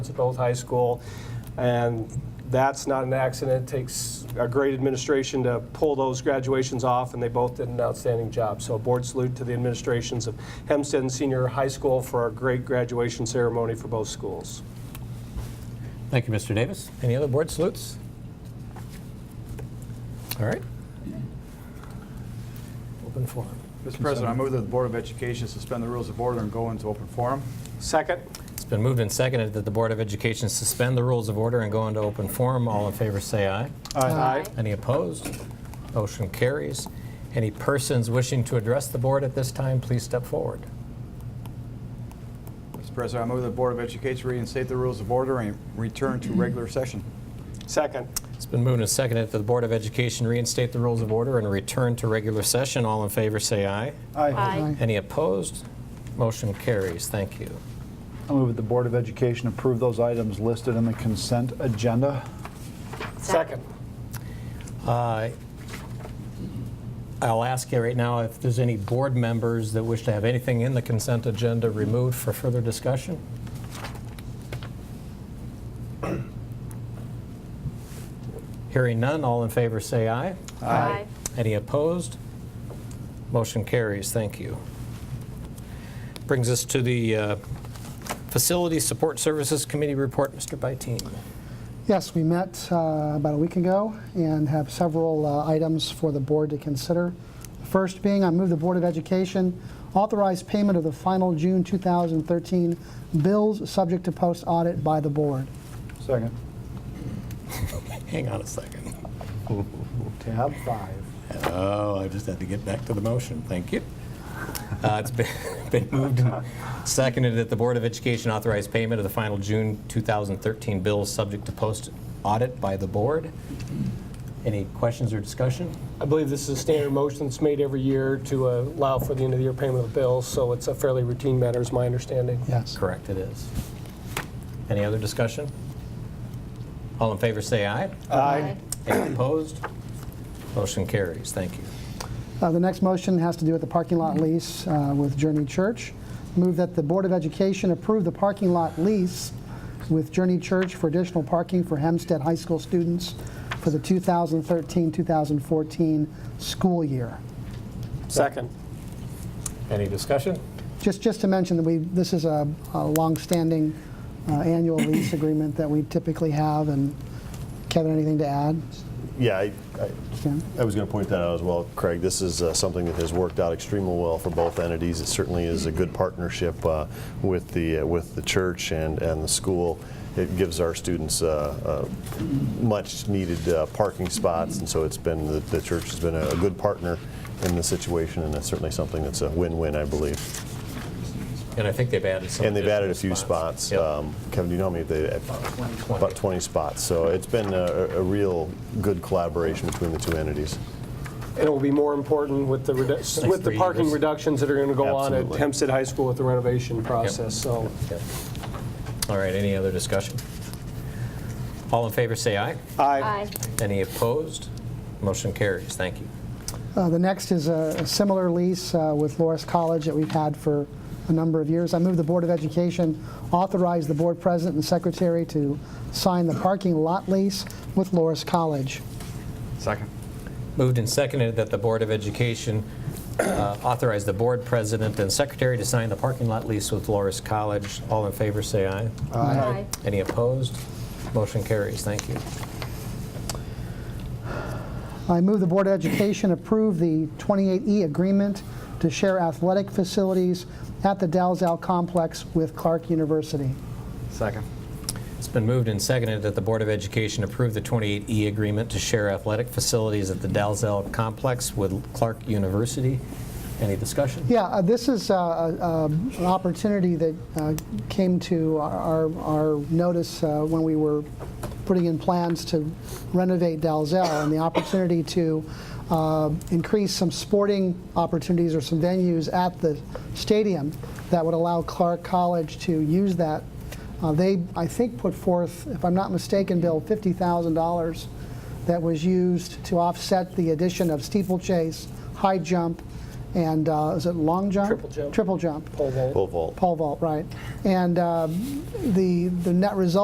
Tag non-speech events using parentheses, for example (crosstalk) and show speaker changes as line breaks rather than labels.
at both high school. And that's not an accident. It takes a great administration to pull those graduations off, and they both did an outstanding job. So a board salute to the administrations of Hempstead and Senior High School for a great graduation ceremony for both schools.
Thank you, Mr. Davis. Any other board salutes? All right. Open forum.
Mr. President, I move that the Board of Education suspend the rules of order and go into open forum.
Second?
It's been moved and seconded that the Board of Education suspend the rules of order and go into open forum. All in favor, say aye.
Aye.
Any opposed? Motion carries. Any persons wishing to address the board at this time, please step forward.
Mr. President, I move that the Board of Education reinstate the rules of order and return to regular session.
Second?
It's been moved and seconded that the Board of Education reinstate the rules of order and return to regular session. All in favor, say aye.
Aye.
Any opposed? Motion carries. Thank you.
I move that the Board of Education approve those items listed in the consent agenda.
Second.
Uh, I'll ask you right now if there's any board members that wish to have anything in the consent agenda removed for further discussion? Hearing none, all in favor say aye.
Aye.
Any opposed? Motion carries, thank you. Brings us to the uh, Facility Support Services Committee report, Mr. Byteam.
Yes, we met uh, about a week ago and have several uh, items for the board to consider. The First being, I move the Board of Education authorize payment of the final June 2013 bills subject to post-audit by the board.
Second.
Hang on a second.
Tab five.
Oh, I just had to get back to the motion. Thank you. Uh, It's been (laughs) been moved and seconded that the Board of Education authorize payment of the final June 2013 bills subject to post-audit by the board. Any questions or discussion?
I believe this is a standard motion that's made every year to uh, allow for the end-of-the-year payment of the bills, so it's a fairly routine matter, is my understanding.
Yes.
Correct, it is. Any other discussion? All in favor, say aye.
Aye.
Any opposed? Motion carries. Thank you.
Uh, The next motion has to do with the parking lot lease uh, with Journey Church. Move that the Board of Education approve the parking lot lease with Journey Church for additional parking for Hempstead High School students for the 2013-2014 school year.
Second.
Any discussion?
Just, just to mention that we, this is a a longstanding uh, annual lease agreement that we typically have, and Kevin, anything to add?
Yeah, I, I,
Ken?
I was going to point that out as well, Craig. This is uh, something that has worked out extremely well for both entities. It certainly is a good partnership uh, with the uh, with the church and and the school. It gives our students uh, uh, much needed uh, parking spots, and so it's been the, the church has been a, a good partner in the situation, and that's certainly something that's a win-win, I believe.
And I think they've added some.
And they've added a
additional
few spots.
Yep.
Um, Kevin, do you know me? They, about 20 spots. So it's been a, a real good collaboration between the two entities.
And it will be more important with the, redu- with the
three
parking
years.
reductions that are going to go on at
Absolutely.
Hempstead High School with the renovation process, so.
Yep. All right, any other discussion? All in favor, say aye.
Aye.
Any opposed? Motion carries. Thank you.
Uh, The next is a a similar lease uh, with Loris College that we've had for a number of years. I move the Board of Education authorize the board president and secretary to sign the parking lot lease with Loris College.
Second.
Moved and seconded that the Board of Education uh, authorize the board president and secretary to sign the parking lot lease with Loris College. All in favor, say aye.
Aye.
Any opposed? Motion carries. Thank you.
I move the Board of Education approve the 28E agreement to share athletic facilities at the Dalzell Complex with Clark University.
Second.
It's been moved and seconded that the Board of Education approve the 28E agreement to share athletic facilities at the Dalzell Complex with Clark University. Any discussion?
Yeah, uh, this is uh, uh, an opportunity that uh, came to our our notice uh, when we were putting in plans to renovate Dalzell, and the opportunity to uh, increase some sporting opportunities or some venues at the stadium that would allow Clark College to use that. Uh, They, I think, put forth, if I'm not mistaken, Bill, $50,000 that was used to offset the addition of steeplechase, high jump, and uh, is it long jump?
Triple jump.
Triple jump.
Pole vault.
Pole vault.
Pole vault, right. And uh, um, the the net result